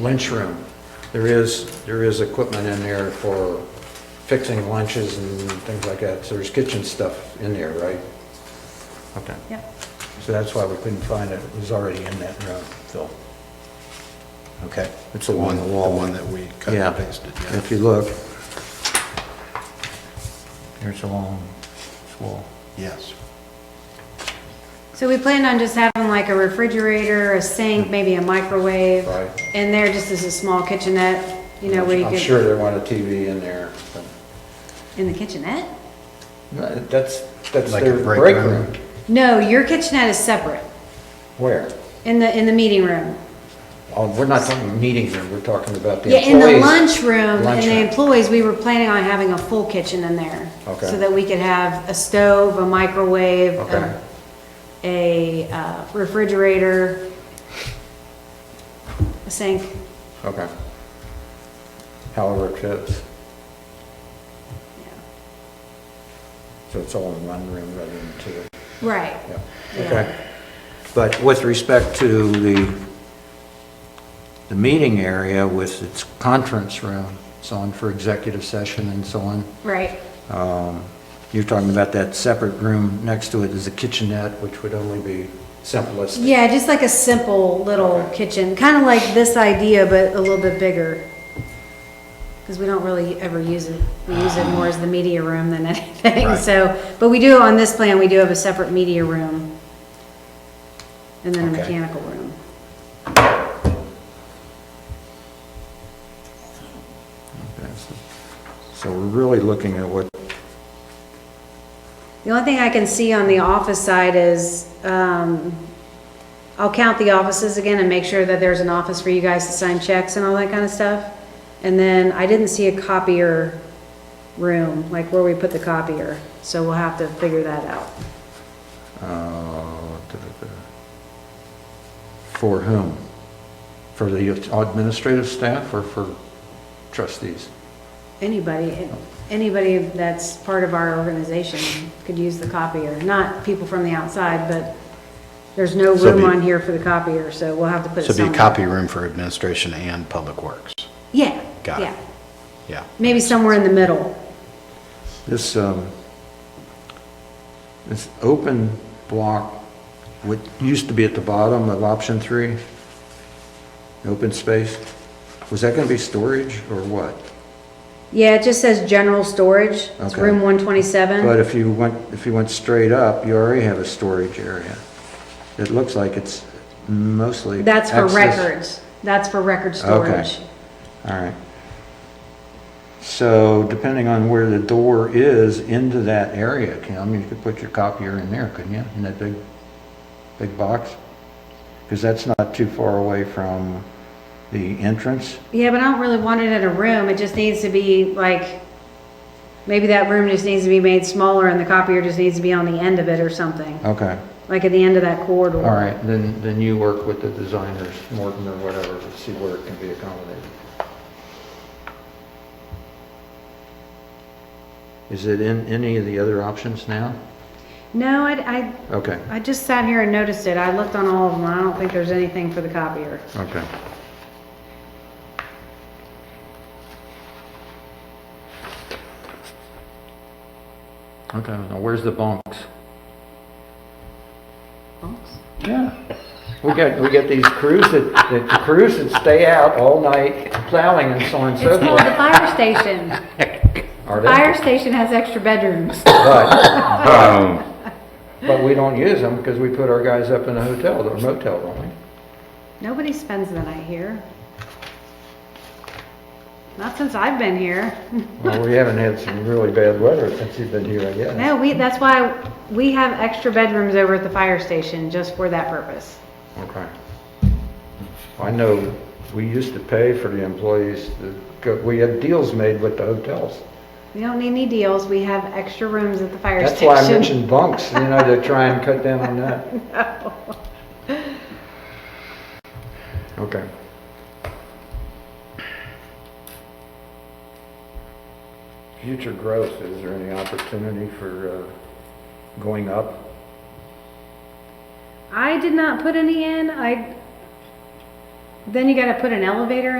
lunchroom. There is, there is equipment in there for fixing lunches and things like that, so there's kitchen stuff in there, right? Okay. Yep. So that's why we couldn't find it, it was already in that room, Phil. Okay, it's The along one, the the wall. one that we cut Yeah, and pasted, yeah. if you look. There's a long wall. Yes. So we planned on just having like a refrigerator, a sink, maybe a microwave. Hmm. Right. In there just as a small kitchenette, you know, where you I'm sure could, they want a TV in there, but in the kitchenette? that's, that's Like a their break break room? room. No, your kitchenette is separate, Where? in the, in the meeting room. Oh, we're not talking meeting room, we're talking about the Yeah, in the employees. lunchroom, in the Lunchroom. employees, we were planning on having a full kitchen in there. Okay. So that we could have a stove, a microwave, Okay. a- a uh, refrigerator, a sink. Okay. However it fits, yeah. so it's all in one room rather than two. Right. Yeah, Yeah. okay. But with respect to the, the meeting area with its conference room, so on for executive session and so on, Right, um, you're talking about that separate room next to it is a kitchenette, which would only be simplest. yeah, just like a simple little Okay. kitchen, kind of like this idea, but a little bit bigger. Because we don't really ever use it, we use it more as the media room than anything, Right. so, but we do, on this plan, we do have a separate media room. And then a Okay. mechanical room. So we're really looking at what, The only thing I can see on the office side is, um, I'll count the offices again and make sure that there's an office for you guys to sign checks and all that kind of stuff. And then I didn't see a copier room, like where we put the copier, so we'll have to figure that out. uh, for whom? For the administrative staff or for trustees? Anybody, anybody that's part of our organization could use the copier, not people from the outside, but there's no So room be- on here for the copier, so we'll have to put it So it'd be somewhere. a copy room for administration and public works. Yeah, Got it. yeah, Yeah. maybe somewhere in the middle. This, um, this open block, what used to be at the bottom of option three, open space, was that gonna be storage or what? Yeah, it just says general storage. It's Okay. room But 127. if you went, if you went straight up, you already have a storage area. It looks like it's mostly. That's for access- records. That's for record Okay. storage. All right. So depending on where the door is into that area, Kim, you could put your copier in there, couldn't you? In that big, big box? Because that's not too far away from the entrance. Yeah, but I don't really want it in a room. It just needs to be like, maybe that room just needs to be made smaller and the copier just needs to be on the end of it or something, Okay, like at the end of that corridor. all right, then, then you work with the designers, Morton or whatever, to see where it can be accommodated. Is it in any of the other options now? No, I, I, Okay, I just sat here and noticed it. I looked on all of them. I don't think there's anything for the copier. okay. Okay, now where's the bunks? Yeah. We got, we got these crews that, that the crews that stay out all night plowing and so on and so It's called the forth. fire station. Are they? Fire station has extra bedrooms. But, Um, but we don't use them because we put our guys up in a hotel or motel, don't we? Nobody spends the night here. Not since I've been here. Well, we haven't had some really bad weather since you've been here, I guess. No, we, that's why we have extra bedrooms over at the fire station just for that purpose. Okay. I know, we used to pay for the employees, to go- we had deals made with the hotels. We don't need any deals. We have extra rooms at the fire That's station. why I mentioned bunks, you know, to try and cut down on that. Okay. Future growth, is there any opportunity for uh, going up? I did not put any in. I, Then you gotta put an elevator